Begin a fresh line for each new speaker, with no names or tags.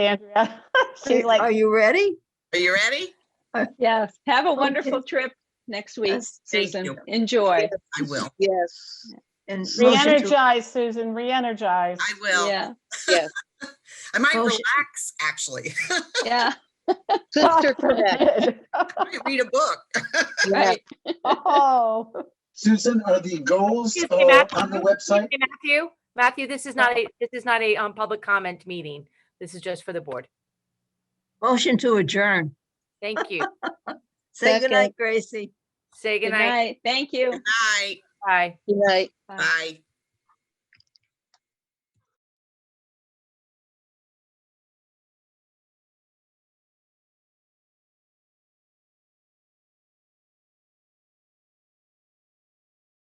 Andrea. She's
Are
like,
you ready?
Are you ready?
Yes, have a wonderful trip next week,
Yes,
thank
Susan.
you.
Enjoy.
I will.
Yes,
And motion to-
re-energize, Susan, re-energize.
I will.
Yeah,
yes.
I might
Motion.
relax, actually.
yeah,
Sister Correct.
I might read a book.
right.
Oh,
Susan, are the goals
Excuse me,
uh,
Matt.
on the website?
Hey, Matthew, Matthew, this is not a, this is not a um, public comment meeting. This is just for the board.
Motion to adjourn.
Thank you.
Say
Second.
goodnight, Gracie.
Say
Good
goodnight.
night. Thank you.
Bye.
Bye.
Good night.
Bye.